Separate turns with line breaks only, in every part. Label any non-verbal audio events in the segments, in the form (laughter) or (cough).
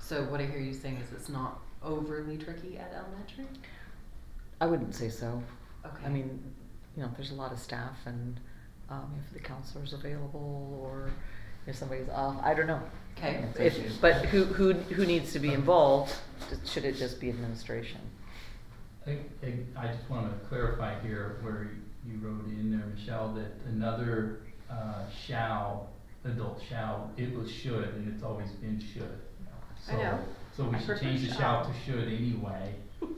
So what I hear you saying is it's not overly tricky at elementary?
I wouldn't say so.
Okay.
I mean, you know, there's a lot of staff and um, if the counselor's available or if somebody's off, I don't know.
Okay.
If, but who, who, who needs to be involved? Should it just be administration?
I, I I just want to clarify here where you- you wrote in there, Michelle, that another uh, shall, adult shall, it was should, and it's always been should.
I know.
So,
I
so we should
prefer
change the shall to
shall. (laughs)
should anyway. Um,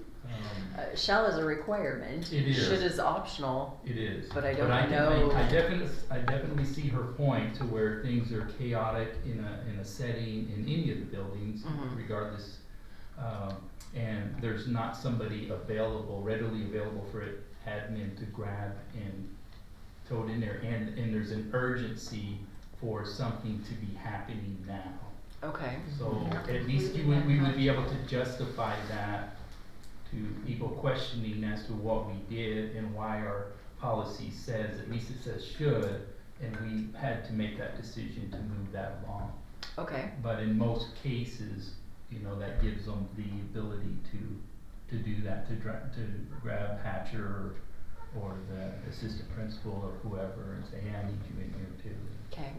Uh, shall is a requirement.
It is.
Should is optional.
It is.
But I don't
can-
know-
I definitely, I definitely see her point to where things are chaotic in a, in a setting in any of the buildings
Mhm.
regardless. Um, and there's not somebody available, readily available for it, admin to grab and throw it in there. And, and there's an urgency for something to be happening now.
Okay.
So
Mhm.
at least you would, we would be able to justify that to people questioning as to what we did and why our policy says, at least it says should, and we had to make that decision to move that along.
Okay.
But in most cases, you know, that gives them the ability to, to do that, to dra- to grab Hatcher or, or the assistant principal or whoever and say, hey, I need you in here too.
Okay.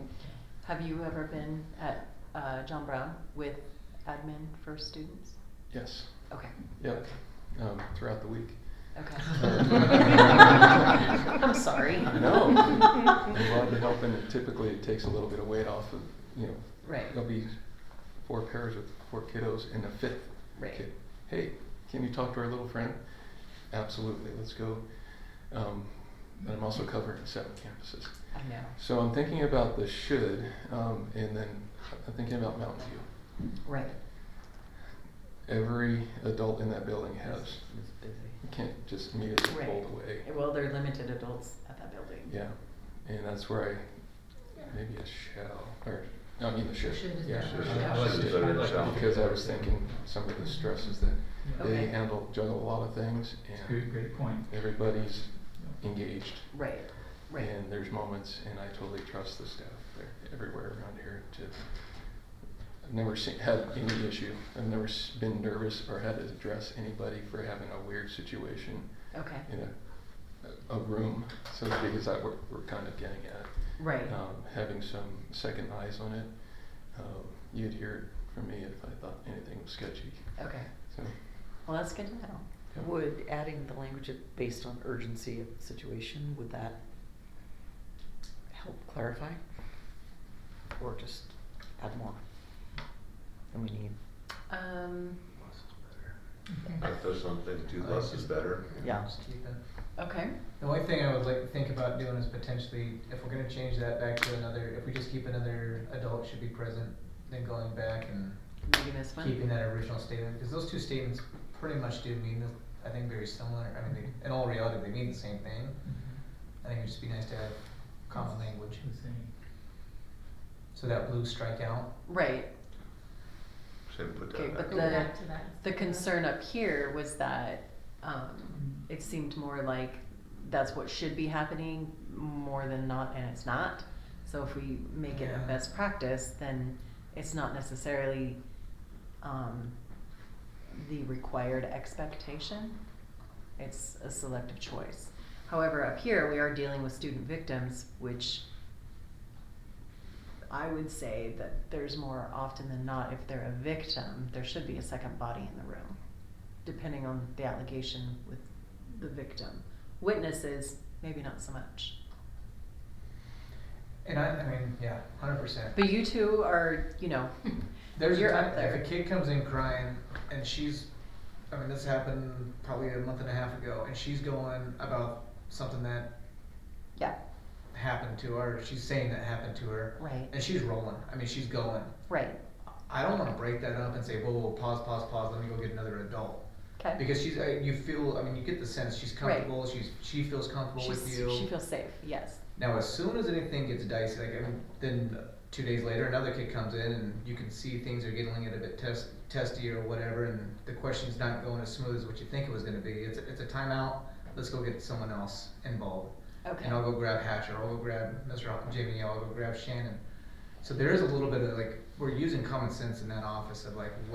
Have you ever been at uh, John Brown with admin for students?
Yes,
Okay.
yep, um, throughout
(laughs)
the week. (laughs)
Okay. I'm
I'm
sorry. (laughs)
I know. I'm glad to help, and typically it takes a little bit of weight off of, you know,
Right.
there'll be four pairs with four kiddos and a fifth
Right.
kid. Hey, can you talk to our little friend? Absolutely, let's go. Um, but I'm also covering seven campuses.
I know.
So I'm thinking about the should, um, and then I'm thinking about Mountain View.
Right.
Every adult in that building has,
It's busy.
you can't just immediately
Right.
fold away.
Well, they're limited adults at that building.
Yeah, and that's where I, maybe a shell, or, no, I mean the shift.
Should is
Yeah,
better.
should.
Yeah.
I like
Should.
the should, I like the
Because
should.
I was thinking some of the stresses that
Yeah.
Okay.
they handle, juggle a lot of things
It's a
and
great, great point.
everybody's engaged.
Right. Right.
And there's moments, and I totally trust the staff there, everywhere around here to, I've never seen, had any issue. I've never s- been nervous or had to address anybody for having a weird situation
Okay.
in a, a room. So because that we're, we're kind of getting at.
Right.
um, having some second eyes on it. Um, you'd hear it from me if I thought anything was sketchy.
Okay.
So,
Well, that's good to know.
yeah.
Would adding the language of- based on urgency of the situation, would that help clarify? Or just add more than we need?
Um,
I throw something, two less is better.
Yeah.
Just keep it.
okay.
The only thing I would like to think about doing is potentially, if we're gonna change that back to another, if we just keep another adult should be present, then going back and
Maybe this one.
keeping that original statement, cause those two statements pretty much do mean, the- I think very similar, I mean, they, in all reality, they mean the same thing. I think it'd just be nice to have common language,
The same.
so that blue strikeout,
Right.
Shouldn't put
Okay,
that
but
back.
Go
the-
back to that.
The concern up here was that um, it seemed more like that's what should be happening more than not, and it's not. So if we make it a
Yeah.
best practice, then it's not necessarily um, the required expectation. It's a selective choice. However, up here, we are dealing with student victims, which I would say that there's more often than not, if they're a victim, there should be a second body in the room, depending on the allegation with the victim. Witnesses, maybe not so much.
and I, I mean, yeah, hundred percent.
But you two are, you know,
(laughs) There's
You're
a time
up there.
if a kid comes in crying and she's, I mean, this happened probably a month and a half ago, and she's going about something that
yeah,
happened to her. She's saying that happened to her,
right,
and she's rolling. I mean, she's going.
right,
I don't want to break that up and say, whoa, whoa, pause, pause, pause. Let me go get another adult
okay.
because she's. I, you feel. I mean, you get the sense she's
Right.
comfortable. She's. She feels comfortable with you.
she feels safe, yes,
Now, as soon as anything gets dicey, like I mean, then two days later, another kid comes in, and you can see things are getting a bit test, testy or whatever, and the question's not going as smooth as what you think it was going to be. It's a, it's a timeout. Let's go get someone else involved,
okay.
and I'll go grab Hatcher. I'll go grab Mr. Al- Jamie. I'll go grab Shannon. So there is a little bit of like we're using common sense in that office of like